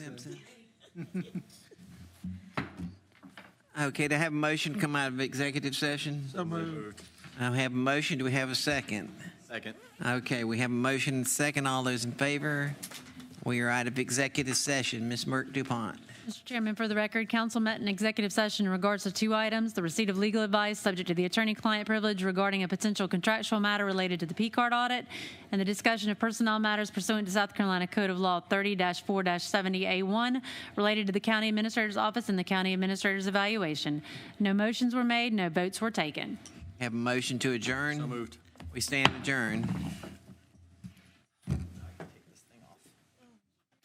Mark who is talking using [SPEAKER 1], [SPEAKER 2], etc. [SPEAKER 1] Simpson. Okay, to have a motion to come out of executive session?
[SPEAKER 2] So moved.
[SPEAKER 1] I have a motion. Do we have a second?
[SPEAKER 2] Second.
[SPEAKER 1] Okay, we have a motion and second. All those in favor? We are out of executive session. Ms. Merck Dupont.
[SPEAKER 3] Mr. Chairman, for the record, council met in executive session in regards to two items, the receipt of legal advice subject to the attorney-client privilege regarding a potential contractual matter related to the P-card audit, and the discussion of personnel matters pursuant to South Carolina Code of Law 30-4-70A1 related to the county administrator's office and the county administrator's evaluation. No motions were made, no votes were taken.
[SPEAKER 1] Have a motion to adjourn?
[SPEAKER 2] So moved.
[SPEAKER 1] We stand adjourned.